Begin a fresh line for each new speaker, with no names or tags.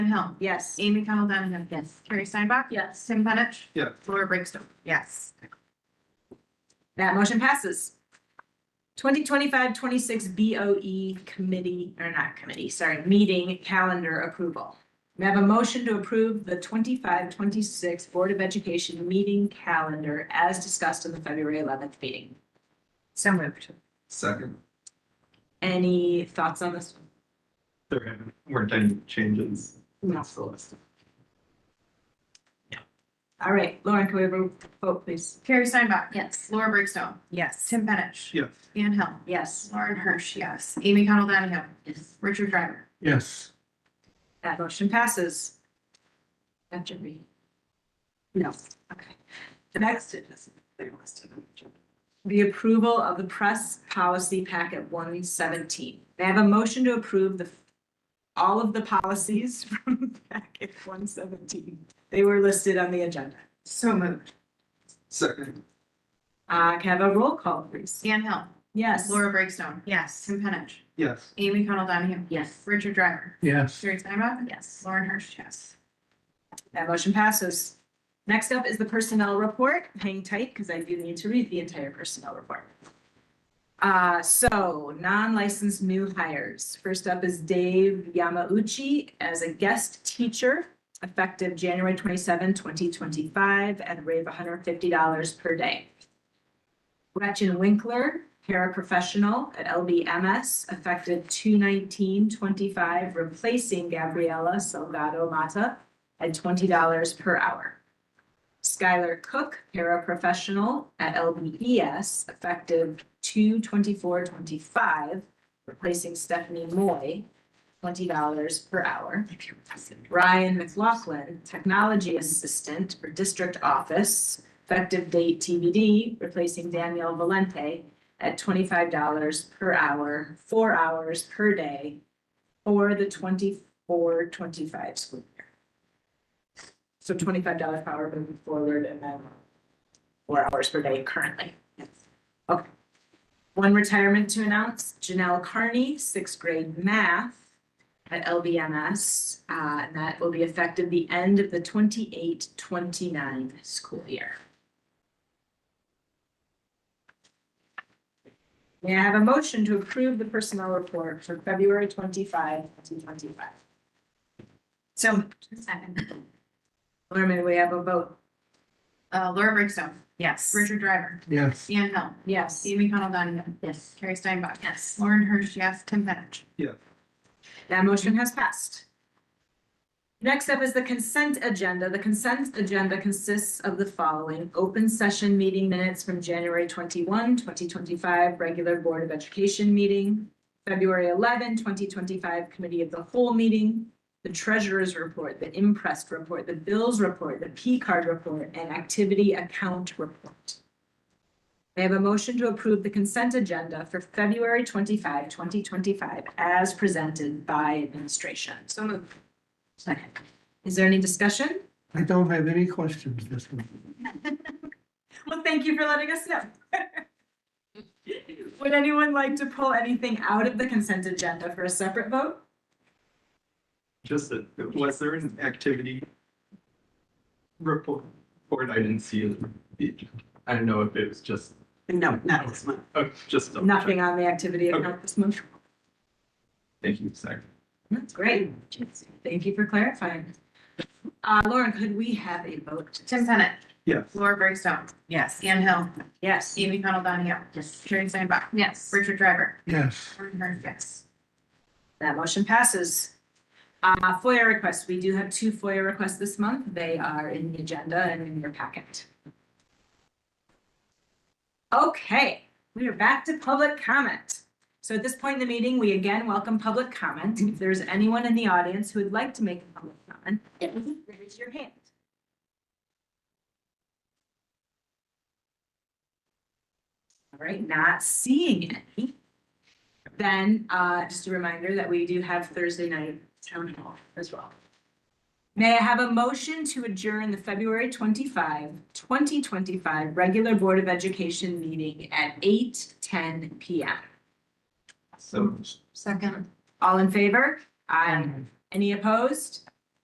Hill.
Yes.
Amy Cottle Donahue. Yes. Carrie Steinbach.
Yes.
Tim Penich.
Yeah.
Laura Brinkstone.
Yes. That motion passes. 2025-26 BOE E committee, or not committee, sorry, meeting calendar approval. We have a motion to approve the 25-26 Board of Education meeting calendar as discussed in the February eleventh meeting. So moved.
Second.
Any thoughts on this?
There weren't any changes.
No. All right, Lauren, can we have a vote, please?
Carrie Steinbach.
Yes.
Laura Brinkstone.
Yes.
Tim Penich.
Yes.
Anne Hill.
Yes,
Lauren Hirsch, yes. Amy Cottle Donahue.
Yes.
Richard Driver.
Yes.
that motion passes. After we. No, okay. The next is the approval of the press policy packet one seventeen. They have a motion to approve the all of the policies from packet one seventeen. They were listed on the agenda.
So moved.
Second.
Uh, can I have a roll call, please?
Anne Hill.
Yes.
Laura Brinkstone.
Yes.
Tim Penich.
Yes.
Amy Cottle Donahue.
Yes.
Richard Driver.
Yes.
Carrie Steinbach.
Yes.
Lauren Hirsch, yes.
That motion passes. Next up is the personnel report. Hang tight because I do need to read the entire personnel report. Uh, so non-licensed new hires. First up is Dave Yamauchi as a guest teacher effective January 27, 2025, at a rate of hundred and fifty dollars per day. Gretchen Winkler, paraprofessional at LBMS, effective 219-25, replacing Gabriela Salgado Mata at twenty dollars per hour. Skylar Cook, paraprofessional at LBES, effective 2-24-25, replacing Stephanie Moy, twenty dollars per hour. Ryan McLaughlin, technology assistant for district office, effective date TBD, replacing Danielle Valente at twenty-five dollars per hour, four hours per day for the 24-25 school year. So twenty-five dollars per hour moving forward and then four hours per day currently. Okay. One retirement to announce, Janelle Carney, sixth grade math at LBMS. Uh, and that will be effective the end of the 28-29 school year. May I have a motion to approve the personnel report for February 25, 2025? So,
Second.
Lerman, we have a vote.
Uh, Laura Brinkstone.
Yes.
Richard Driver.
Yes.
Anne Hill.
Yes.
Amy Cottle Donahue.
Yes.
Carrie Steinbach.
Yes.
Lauren Hirsch, yes. Tim Penich.
That motion has passed. Next up is the consent agenda. The consent agenda consists of the following. Open session meeting minutes from January 21, 2025, regular Board of Education meeting. February 11, 2025, Committee of the Whole meeting. The Treasurer's report, the Impressed report, the Bills report, the P card report, and Activity Account report. May I have a motion to approve the consent agenda for February 25, 2025, as presented by administration. So moved. Second. Is there any discussion?
I don't have any questions this one.
Well, thank you for letting us know. Would anyone like to pull anything out of the consent agenda for a separate vote?
Just that, was there an activity report? Report, I didn't see it. I don't know if it was just,
No, not this one.
oh, just. double check.
Nothing on the activity account this month.
Thank you, second.
That's great. Thank you for clarifying. Uh, Lauren, could we have a vote?
Tim Penich.
Yes.
Laura Brinkstone.
Yes.
Anne Hill.
Yes.
Amy Cottle Donahue.
Yes.
Carrie Steinbach.
Yes.
Richard Driver.
Yes,
Lauren Hirsch, yes.
That motion passes. Uh, FOIA requests, we do have two FOIA requests this month. They are in the agenda and in your packet. Okay, we are back to public comment. So at this point in the meeting, we again welcome public comment. If there's anyone in the audience who would like to make a public comment, raise your hand. All right, not seeing any. Then, uh, just a reminder that we do have Thursday night town hall as well. May I have a motion to adjourn the February 25, 2025 regular Board of Education meeting at eight ten P M.
So
Second.
All in favor? Aye. Any opposed?